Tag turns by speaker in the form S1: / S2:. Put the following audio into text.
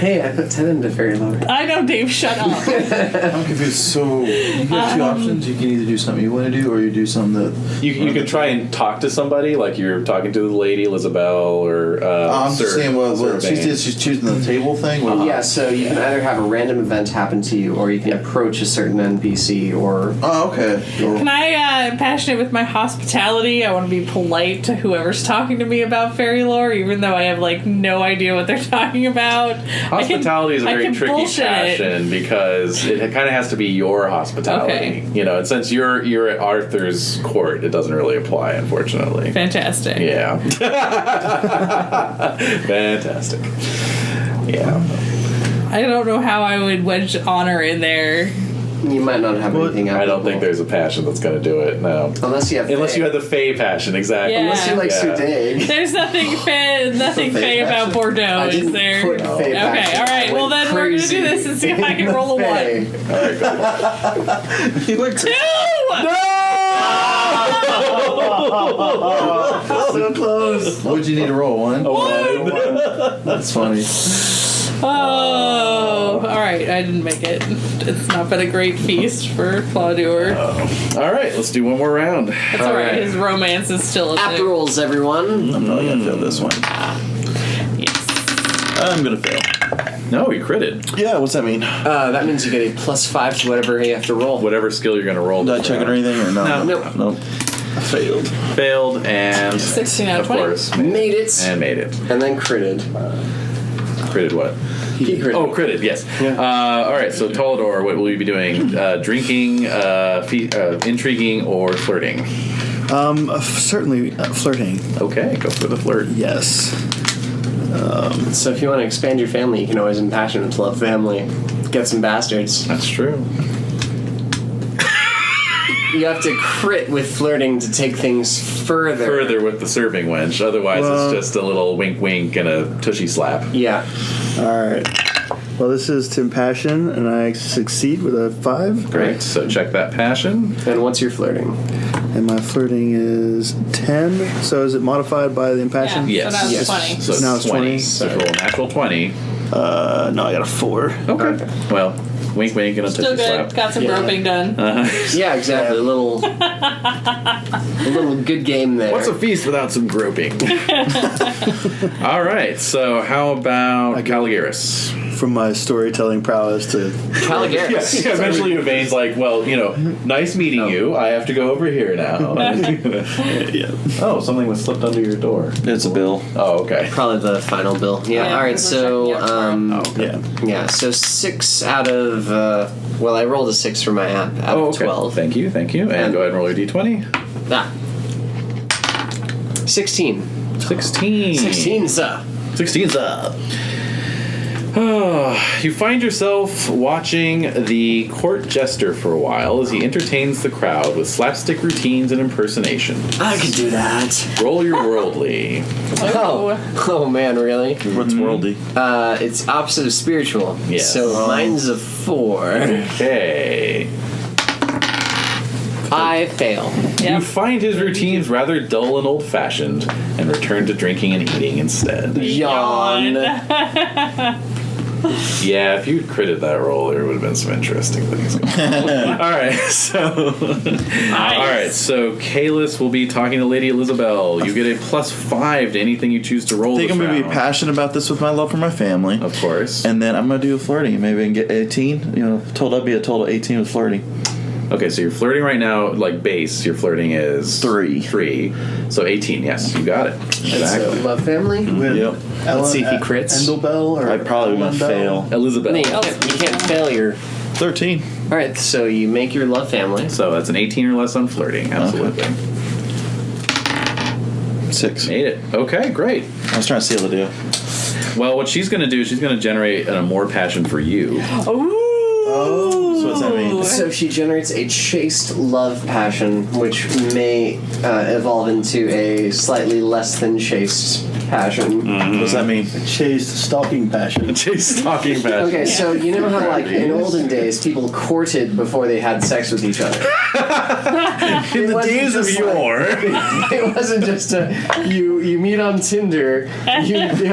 S1: Hey, I put 10 into Fairy Lover.
S2: I know, Dave. Shut up.
S3: I'm confused. So you have two options. You can either do something you want to do, or you do something that
S4: You, you could try and talk to somebody, like you're talking to the lady Elizabeth or uh,
S3: I'm just
S4: Sir-
S3: saying what, what
S4: Sir
S3: she
S4: Bane.
S3: did. She's choosing the table thing. What-
S1: Yeah, so you can either have a random event happen to you, or you can approach a certain NPC, or
S3: Oh, okay.
S2: Can I uh, am passionate with my hospitality? I want to be polite to whoever's talking to me about fairy lore, even though I have like no idea what they're talking about. I can-
S4: Hospitality is a
S2: I
S4: very
S2: can
S4: tricky
S2: bullshit it.
S4: passion because it kind of has to be your hospitality,
S2: Okay.
S4: you know. And since you're you're at Arthur's court, it doesn't really apply, unfortunately.
S2: Fantastic.
S4: Yeah, fantastic. Yeah,
S2: I don't know how I would wedge honor in there.
S1: you might not have anything out
S4: I don't think there's a passion that's going to do it. No,
S1: Unless you have.
S4: unless you
S1: Fae.
S4: had the Fey passion, exactly.
S2: Yeah.
S1: Unless you like
S4: Yeah.
S1: Sudig.
S2: There's nothing fa- nothing
S3: Something
S2: fey about
S3: fashion.
S2: Bordeaux,
S1: I
S2: Oh, is
S1: didn't
S2: there?
S1: put Fae back
S2: Okay,
S1: in.
S2: all right,
S1: I
S2: well,
S1: went
S2: then we're gonna do
S1: crazy
S2: this and see if I
S1: in
S2: can
S1: the
S2: roll a
S1: Fae.
S4: All right, go.
S3: He looked
S2: Two!
S1: So close.
S3: What'd you need to roll? One?
S4: One.
S3: That's funny.
S2: Oh, all right. I didn't make it. It's not been a great feast for Claudur.
S4: All right, let's do one more round.
S2: That's all right. His romance is still a
S1: App
S2: thing.
S1: rolls, everyone.
S4: Mm-hmm.
S3: I'm probably gonna fail this one.
S2: Yes.
S3: I'm gonna fail.
S4: No, you critted.
S3: Yeah, what's that mean?
S1: Uh, that means you get a plus five to whatever you have to roll.
S4: Whatever skill you're going to roll.
S3: Did I
S4: this
S3: check it or
S4: round.
S3: anything or no?
S1: Nope.
S3: Nope. I failed.
S4: Failed and
S2: 16 out of
S4: of
S2: 20.
S4: course
S1: Made it.
S4: and made it.
S1: And then critted.
S4: Critted what?
S1: He critted.
S4: Oh, critted. Yes. Uh, all right. So Tolador, what will you be doing? Uh, drinking, uh, fe- uh, intriguing, or flirting?
S5: Um, uh, f- certainly uh, flirting.
S4: Okay, go for the flirt.
S5: Yes.
S1: So if you want to expand your family, you can always impassion with love family. Get some bastards.
S4: That's true.
S1: You have to crit with flirting to take things further.
S4: Further with the serving wench. Otherwise,
S5: Well-
S4: it's just a little wink, wink, and a tushy slap.
S1: Yeah.
S5: All right. Well, this is Tim Passion, and I succeed with a five,
S4: Great. So check that passion.
S1: And what's your flirting?
S5: and my flirting is ten. So is it modified by the impassion?
S2: Yeah. So that was
S4: Yes.
S2: funny.
S4: So
S5: Now it's 20.
S4: So roll a natural twenty.
S5: Uh, no, I got a four.
S4: Okay. Well, wink, wink, and a
S2: Still
S4: tushy
S2: good.
S4: slap.
S2: Got some groping done.
S1: Yeah, exactly. A little, a little good game there.
S4: What's a feast without some groping? All right. So how about Caligaris?
S5: From my storytelling prowess to
S1: Caligaris?
S4: Yes. Yeah, eventually, Yvain's like, "Well, you know, nice meeting you. I have to go over here now."
S5: yeah.
S4: oh, something was slipped under your door.
S3: It's a bill.
S4: Oh, okay.
S1: Probably the final bill. Yeah.
S2: Yeah,
S1: all right.
S2: because we're
S1: So,
S2: checking out
S1: um,
S4: Oh, okay.
S5: Yeah.
S1: yeah. So six out of uh, well, I rolled a six for my app out
S4: Oh,
S1: of
S4: okay.
S1: twelve.
S4: Thank you, thank you. And,
S1: And-
S4: go ahead and roll your d20.
S1: Ah. Sixteen.
S4: 16.
S1: Sixteen, sir.
S4: 16's up. Ah, you find yourself watching the court jester for a while as he entertains the crowd with slapstick routines and impersonation.
S1: I could do that.
S4: Roll your worldly.
S1: Oh, oh man, really?
S3: What's worldly?
S1: Uh, it's opposite of spiritual.
S4: Yes.
S1: So mine's a four.
S4: Okay.
S1: I fail.
S2: Yep.
S4: You find his routines rather dull and old fashioned and return to drinking and eating instead.
S1: Yawn.
S4: Yeah, if you'd critted that roll, there would have been some interesting things. Alright, so Alright, so Kalis will be talking to Lady Elizabeth. You get a plus five to anything you choose to roll.
S3: I think
S4: this
S3: I'm gonna be
S4: round.
S3: passionate about this with my love for my family.
S4: Of course.
S3: And then I'm gonna do a flirting. Maybe I can get 18. You know, total I'd be a total 18 with flirting.
S4: okay, so you're flirting right now, like base, your flirting is
S3: Three.
S4: Three. So eighteen, yes, you got it.
S1: So,
S4: Exactly.
S1: love family. uh,
S3: Yep.
S1: Hmm. Let's see if he crits.
S5: Endelbell or
S3: I probably gonna fail.
S5: Elendel?
S4: Elizabeth.
S1: No, you, can't, you can't fail your.
S3: 13.
S1: All right, Oh. so you make your love family.
S4: So that's an 18 or less on flirting. Absolutely.
S3: Six.
S4: Made it. Okay, great.
S3: I was trying to seal the deal.
S4: Well, what she's going to do, she's going to generate an more passion for you.
S3: So what's that mean?
S1: So she generates a chaste love passion, which may uh, evolve into a slightly less than chaste passion.
S3: What's that mean?
S5: Chase stalking passion.
S4: She's talking about.
S1: Okay, so you know how, like, in olden days, people courted before they had sex with each other.
S4: In the
S1: wasn't days of just like-
S4: yore.
S1: it wasn't just a you you meet on Tinder, you